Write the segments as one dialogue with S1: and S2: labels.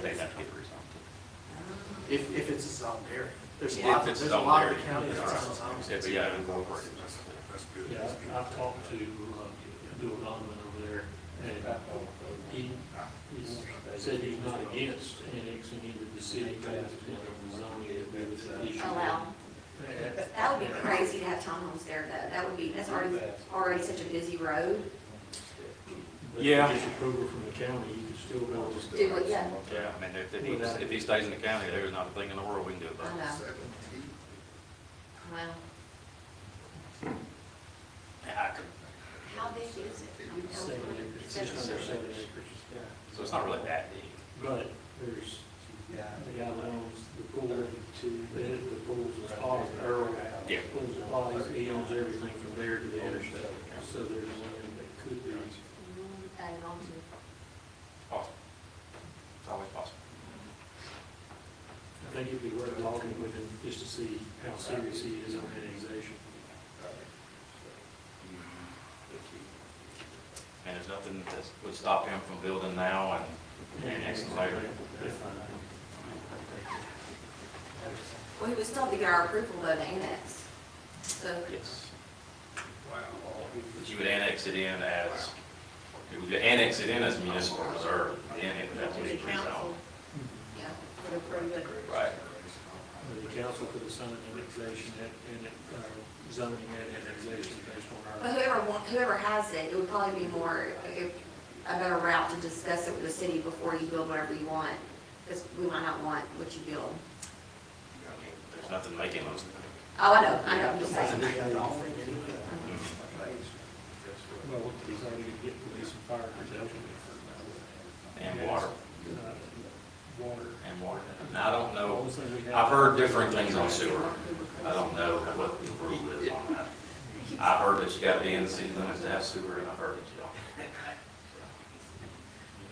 S1: they'd have to get rezoned.
S2: If, if it's a zone area. There's a
S1: If
S2: lot,
S1: it's
S2: there's a
S1: zoned
S2: lot of the
S1: area,
S2: county that's
S1: that's
S2: on
S1: right.
S2: zones.
S1: If you got incorporated.
S3: That's good.
S4: Yeah, I- I've talked to, uh, Bill Donovan over there, and he, he said he's not against annexing into the city, but it's been a zoning that we would issue.
S5: allow. Oh, That would be crazy to have townhomes there though. That would be, that's already, already such a busy road.
S4: But
S1: Yeah.
S4: With approval from the county, you could still build.
S5: Do what, yeah,
S1: Yeah, I mean, if, if he, if he stays in the county, there is not a thing in the world we can do
S5: I
S1: about it.
S5: know. Well,
S1: Yeah, I could-
S5: how big is it? I mean, how-
S4: Seven acres,
S5: seven
S4: just under
S5: acres.
S4: seven acres.
S1: So it's not really that deep.
S4: But there's, the guy that owns the pool, the, the pool's a spot, Earl.
S1: Yeah.
S4: Pool's a spot, he owns everything from there to the interstate, so there's land that could be.
S5: Mm, I don't know.
S1: Possible. It's always possible.
S4: I think it'd be worth talking with him just to see how serious he is on annexation.
S1: And there's nothing that would stop him from building now and annexing later.
S4: uh,
S5: Well, he would still have to get our approval though to annex. So,
S1: Yes.
S3: Wow.
S1: But you would annex it in as, you would annex it in as municipal reserve, then it would have to be
S6: The council
S1: rezoned.
S5: yeah.
S6: would approve it.
S1: Right.
S4: The council could assign annexation and, uh, zoning and annexation based on
S5: But
S4: our.
S5: whoever, wa- whoever has it, it would probably be more, it- a better route to discuss it with the city before you build whatever you want, because we might not want what you build.
S1: I mean, There's nothing making those.
S5: Oh, I know, I know, I'm just saying.
S1: mm,
S4: Well, he's already gonna get police and fire protection.
S1: And water,
S4: Uh, Water.
S1: and water. And I don't know,
S4: Also, we have-
S1: I've heard different things on sewer. I don't know what the rule is on that. I've heard that you gotta be in the city limits to have sewer, and I've heard that you don't.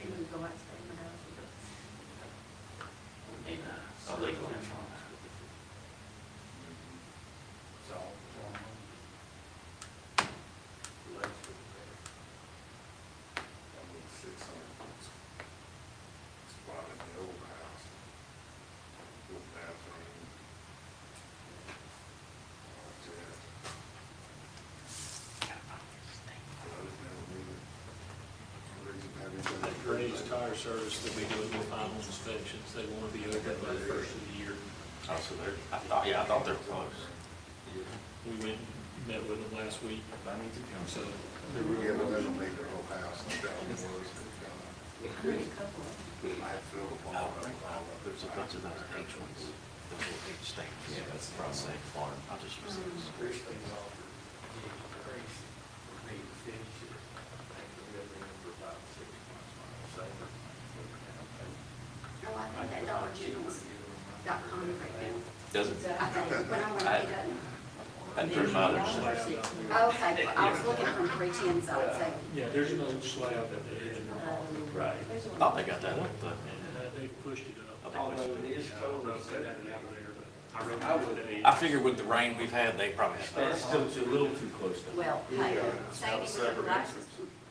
S6: It would go out to
S1: Need a legal entry on that.
S3: Spot in the old house. Old bathroom. Like that. I just never knew it. Reason I didn't really-
S4: That Graves Tire Service that we do with final inspections, they want to be open by the first of the year.
S1: Oh, so they're, I thought, yeah, I thought they were close.
S4: We went, and met with them last week, so. they're really-
S3: Yeah, but that'll make the whole house, like that one was, and,
S6: be announced. A couple.
S3: uh, I filled
S1: Oh,
S3: them all, I think, all of
S1: There's a bunch of those H ones, those little H stains. Yeah, that's the problem. Same farm, I'll just use those.
S5: Oh, I think that Dollar General's dot com right
S1: Doesn't,
S5: now. I think, when I went, it doesn't.
S1: and through mothers.
S6: Okay, well, I was looking from three ten, so I'd say,
S4: Yeah, there's an old slab that they had in their hall,
S6: um,
S1: Right. Thought they got that one, but
S4: and uh, they pushed it up.
S1: I think
S4: Oh, it is cold, I said that out there, but I reckon I would have.
S1: I figure with the rain we've had, they probably.
S7: That's still too, a little too close to.
S6: well, hey, saying it was a rice is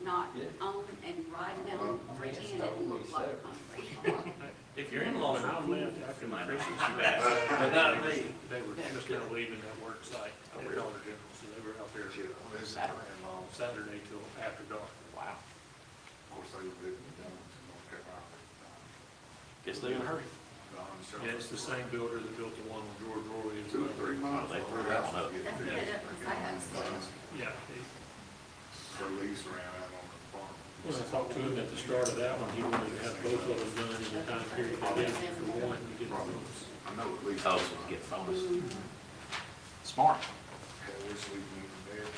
S6: not on and riding down three ten, it didn't look like concrete.
S7: If your in-laws are
S4: I
S7: cool,
S4: left
S7: you
S4: after my
S7: might
S4: precinct,
S7: not.
S4: you asked.
S7: But not me.
S4: They were just now leaving that work site at Dollar General, so they were out there Saturday till after dark.
S1: Wow.
S3: Of course, they lived in Dallas, North Carolina.
S1: Guess they're in a hurry.
S3: Don Sherman.
S4: Yeah, it's the same builder that built the one with George Roy. and
S3: Two or three months.
S1: They threw that one up.
S6: That's
S3: Yeah.
S6: good, that was fast.
S4: Yeah.
S3: Their lease ran out on the farm.
S4: When I talked to him at the start of that one, he wanted to have both of them done in the time period they did for one, he did
S3: Probably,
S4: both.
S3: I know at least.
S1: Oh, so we get bonus.
S5: Mm-hmm.
S1: Smart.
S3: Had a wish we moved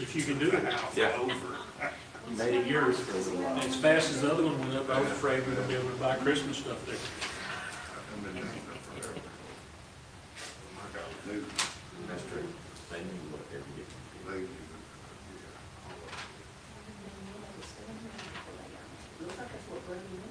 S4: If you can do it.
S3: there. House
S1: Yeah.
S3: over.
S7: You made it yours for a little
S4: And
S7: while.
S4: As fast as the other one went up, I was afraid we were gonna be able to buy Christmas stuff there.
S3: I've been down there forever. My God, they,
S7: That's true. They knew what they were getting.
S3: they, yeah, all of it.
S6: Looks like it's what we're doing.
S3: uh,